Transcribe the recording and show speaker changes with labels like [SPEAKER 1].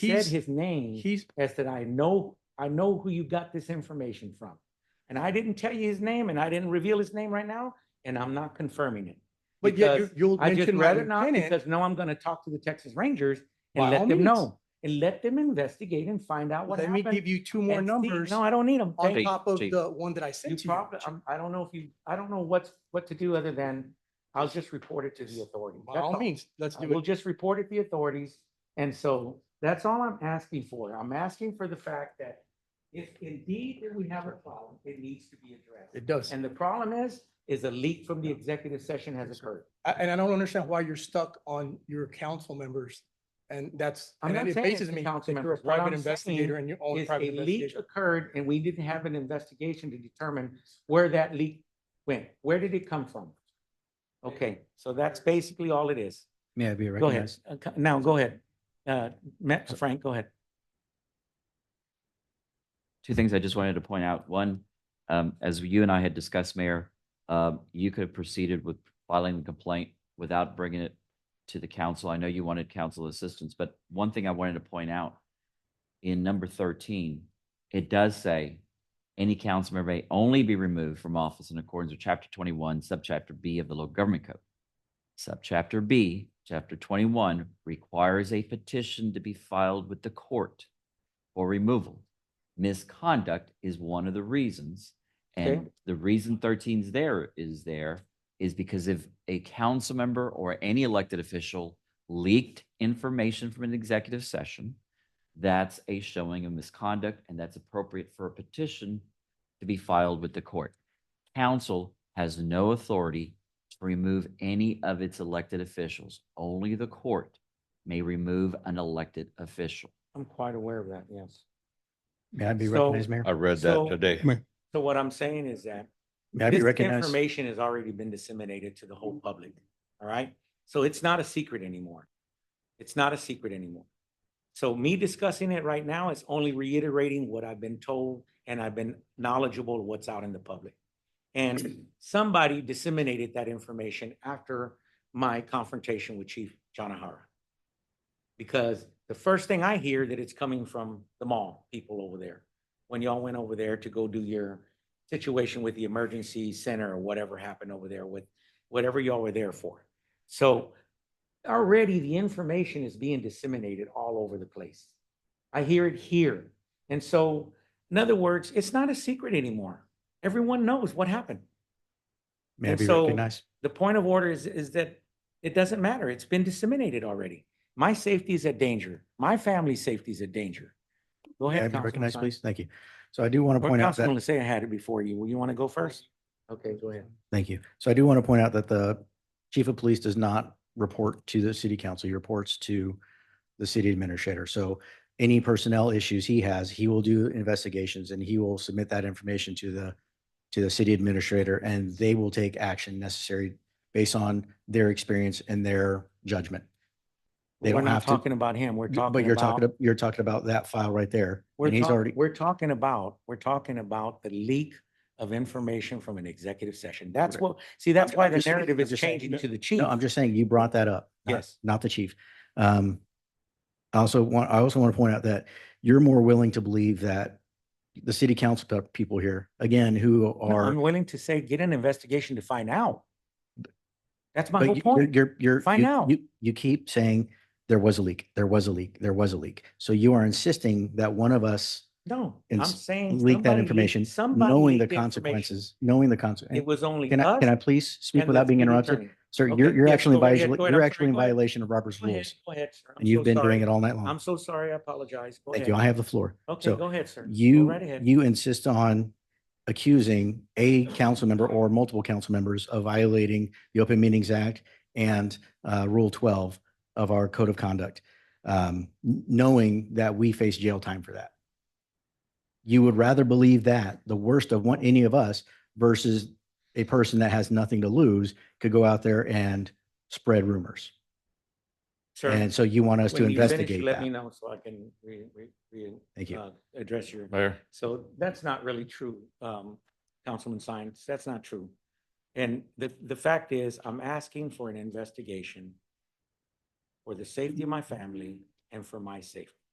[SPEAKER 1] said
[SPEAKER 2] He's-
[SPEAKER 1] his name
[SPEAKER 2] He's,
[SPEAKER 1] as that I know, I know who you got this information from. And I didn't tell you his name and I didn't reveal his name right now, and I'm not confirming it.
[SPEAKER 2] but yeah, you-
[SPEAKER 1] Because
[SPEAKER 2] you'll
[SPEAKER 1] I just
[SPEAKER 2] mention
[SPEAKER 1] read
[SPEAKER 2] rather
[SPEAKER 1] it now
[SPEAKER 2] than it.
[SPEAKER 1] because now I'm gonna talk to the Texas Rangers
[SPEAKER 2] By
[SPEAKER 1] and
[SPEAKER 2] all
[SPEAKER 1] let them
[SPEAKER 2] means.
[SPEAKER 1] know. And let them investigate and find out what
[SPEAKER 2] Let me give
[SPEAKER 1] happened.
[SPEAKER 2] you two more
[SPEAKER 1] and see-
[SPEAKER 2] numbers
[SPEAKER 1] No, I don't need them.
[SPEAKER 2] on
[SPEAKER 3] Jake,
[SPEAKER 2] top of
[SPEAKER 3] Jake.
[SPEAKER 2] the one that I sent
[SPEAKER 1] You
[SPEAKER 2] to
[SPEAKER 1] probably,
[SPEAKER 2] you.
[SPEAKER 1] I'm, I don't know if you, I don't know what's, what to do other than I'll just report it to the authorities.
[SPEAKER 2] By
[SPEAKER 1] That's
[SPEAKER 2] all
[SPEAKER 1] all.
[SPEAKER 2] means, let's
[SPEAKER 1] I
[SPEAKER 2] do
[SPEAKER 1] will
[SPEAKER 2] it.
[SPEAKER 1] just report it to the authorities. And so that's all I'm asking for. I'm asking for the fact that if indeed that we have a problem, it needs to be addressed.
[SPEAKER 2] It does.
[SPEAKER 1] And the problem is, is a leak from the executive session has occurred.
[SPEAKER 2] I- And I don't understand why you're stuck on your council members. And that's,
[SPEAKER 1] I'm
[SPEAKER 2] and
[SPEAKER 1] not
[SPEAKER 2] it
[SPEAKER 1] saying it's
[SPEAKER 2] bases
[SPEAKER 1] the
[SPEAKER 2] me that
[SPEAKER 1] council
[SPEAKER 2] you're a
[SPEAKER 1] members. What
[SPEAKER 2] private
[SPEAKER 1] I'm
[SPEAKER 2] investigator
[SPEAKER 1] saying
[SPEAKER 2] and your own
[SPEAKER 1] Is a
[SPEAKER 2] private
[SPEAKER 1] leak
[SPEAKER 2] investigation.
[SPEAKER 1] occurred and we didn't have an investigation to determine where that leak went. Where did it come from? Okay, so that's basically all it is.
[SPEAKER 3] May I be
[SPEAKER 1] Go ahead.
[SPEAKER 3] recognized?
[SPEAKER 1] Uh, co- Now, go ahead. Uh, Ma- Frank, go ahead.
[SPEAKER 3] Two things I just wanted to point out. One, um, as you and I had discussed, Mayor, um, you could have proceeded with filing the complaint without bringing it to the council. I know you wanted council assistance, but one thing I wanted to point out in number thirteen, it does say any council member may only be removed from office in accordance with chapter twenty-one, subchapter B of the local government code. Subchapter B, chapter twenty-one requires a petition to be filed with the court for removal. Misconduct is one of the reasons.
[SPEAKER 1] Okay.
[SPEAKER 3] And the reason 13's there is there is because if a council member or any elected official leaked information from an executive session, that's a showing of misconduct and that's appropriate for a petition to be filed with the court. Council has no authority to remove any of its elected officials. Only the court may remove an elected official.
[SPEAKER 1] I'm quite aware of that, yes.
[SPEAKER 4] May I be
[SPEAKER 1] So-
[SPEAKER 4] recognized, Mayor?
[SPEAKER 5] I read
[SPEAKER 1] So-
[SPEAKER 5] that today.
[SPEAKER 1] So what I'm saying is that
[SPEAKER 4] May I be
[SPEAKER 1] this
[SPEAKER 4] recognized?
[SPEAKER 1] information has already been disseminated to the whole public, all right? So it's not a secret anymore. It's not a secret anymore. So me discussing it right now is only reiterating what I've been told and I've been knowledgeable of what's out in the public. And somebody disseminated that information after my confrontation with Chief Jonahara. Because the first thing I hear that it's coming from the mall people over there, when y'all went over there to go do your situation with the emergency center or whatever happened over there with whatever y'all were there for. So already the information is being disseminated all over the place. I hear it here. And so, in other words, it's not a secret anymore. Everyone knows what happened.
[SPEAKER 4] May I
[SPEAKER 1] and
[SPEAKER 4] be
[SPEAKER 1] so-
[SPEAKER 4] recognized?
[SPEAKER 1] The point of order is, is that it doesn't matter. It's been disseminated already. My safety is at danger. My family's safety is at danger. Go
[SPEAKER 4] May I
[SPEAKER 1] ahead.
[SPEAKER 4] be
[SPEAKER 1] Councilman
[SPEAKER 4] recognized,
[SPEAKER 1] Sines.
[SPEAKER 4] please? Thank you. So I do want to
[SPEAKER 1] Or
[SPEAKER 4] point out that.
[SPEAKER 1] Councilman Lasea had it before you. Well, You want to go first? Okay, go ahead.
[SPEAKER 4] Thank you. So I do want to point out that the chief of police does not report to the city council. He reports to the city administrator. So any personnel issues he has, he will do investigations and he will submit that information to the, to the city administrator and they will take action necessary based on their experience and their judgment. They
[SPEAKER 1] We're
[SPEAKER 4] don't
[SPEAKER 1] not
[SPEAKER 4] have to-
[SPEAKER 1] talking about him. We're talking
[SPEAKER 4] But you're talking,
[SPEAKER 1] about,
[SPEAKER 4] ab- you're talking about that file right there.
[SPEAKER 1] we're
[SPEAKER 4] And he's
[SPEAKER 1] talking,
[SPEAKER 4] already,
[SPEAKER 1] we're talking about, we're talking about the leak of information from an executive session. That's
[SPEAKER 4] Correct.
[SPEAKER 1] what, see, that's
[SPEAKER 4] I'm
[SPEAKER 1] why the
[SPEAKER 4] just saying-
[SPEAKER 1] narrative
[SPEAKER 4] I'm
[SPEAKER 1] is
[SPEAKER 4] just saying,
[SPEAKER 1] changing
[SPEAKER 4] no-
[SPEAKER 1] to the chief.
[SPEAKER 4] No, I'm just saying you brought that up. not-
[SPEAKER 1] Yes.
[SPEAKER 4] Not the chief. Um, I also want, I also want to point out that you're more willing to believe that the city council pe- people here, again, who
[SPEAKER 1] No,
[SPEAKER 4] are.
[SPEAKER 1] I'm willing to say, get an investigation to find out. That's my
[SPEAKER 4] but
[SPEAKER 1] whole
[SPEAKER 4] you-
[SPEAKER 1] point.
[SPEAKER 4] You're, you're.
[SPEAKER 1] Find
[SPEAKER 4] you-
[SPEAKER 1] out.
[SPEAKER 4] You, you keep saying there was a leak, there was a leak, there was a leak. So you are insisting that one of us
[SPEAKER 1] No,
[SPEAKER 4] and
[SPEAKER 1] I'm
[SPEAKER 4] s-
[SPEAKER 1] saying.
[SPEAKER 4] leaked that
[SPEAKER 1] somebody
[SPEAKER 4] information,
[SPEAKER 1] somebody
[SPEAKER 4] knowing the
[SPEAKER 1] leaked information.
[SPEAKER 4] consequences, knowing the consequences.
[SPEAKER 1] It was only
[SPEAKER 4] Can I, can I
[SPEAKER 1] us
[SPEAKER 4] please speak
[SPEAKER 1] and
[SPEAKER 4] without
[SPEAKER 1] the
[SPEAKER 4] being
[SPEAKER 1] city
[SPEAKER 4] interrupted?
[SPEAKER 1] attorney.
[SPEAKER 4] Sir,
[SPEAKER 1] Okay,
[SPEAKER 4] you're, you're
[SPEAKER 1] yes,
[SPEAKER 4] actually in
[SPEAKER 1] go ahead,
[SPEAKER 4] violation,
[SPEAKER 1] go ahead,
[SPEAKER 4] you're
[SPEAKER 1] I'm
[SPEAKER 4] actually
[SPEAKER 1] sorry,
[SPEAKER 4] in
[SPEAKER 1] go ahead.
[SPEAKER 4] violation of Robert's
[SPEAKER 1] Go ahead,
[SPEAKER 4] rules.
[SPEAKER 1] go ahead, sir. I'm
[SPEAKER 4] And you've
[SPEAKER 1] so
[SPEAKER 4] been
[SPEAKER 1] sorry.
[SPEAKER 4] doing it all night long.
[SPEAKER 1] I'm so sorry. I apologize. Go
[SPEAKER 4] Thank
[SPEAKER 1] ahead.
[SPEAKER 4] you. I have the floor.
[SPEAKER 1] Okay,
[SPEAKER 4] So
[SPEAKER 1] go ahead, sir. Go
[SPEAKER 4] You,
[SPEAKER 1] right ahead.
[SPEAKER 4] you insist on accusing a council member or multiple council members of violating the Open Meetings Act and uh, Rule 12 of our Code of Conduct, um, n- knowing that we face jail time for that. You would rather believe that, the worst of one, any of us, versus a person that has nothing to lose could go out there and spread rumors.
[SPEAKER 1] Sir,
[SPEAKER 4] And so you want us to
[SPEAKER 1] when you finish,
[SPEAKER 4] investigate
[SPEAKER 1] Let me
[SPEAKER 4] that.
[SPEAKER 1] know so I can re, re, re,
[SPEAKER 4] Thank you.
[SPEAKER 1] uh, address your,
[SPEAKER 5] Mayor,
[SPEAKER 1] so that's not really true, um, Councilman Sines, that's not true. And the, the fact is, I'm asking for an investigation for the safety of my family and for my safety.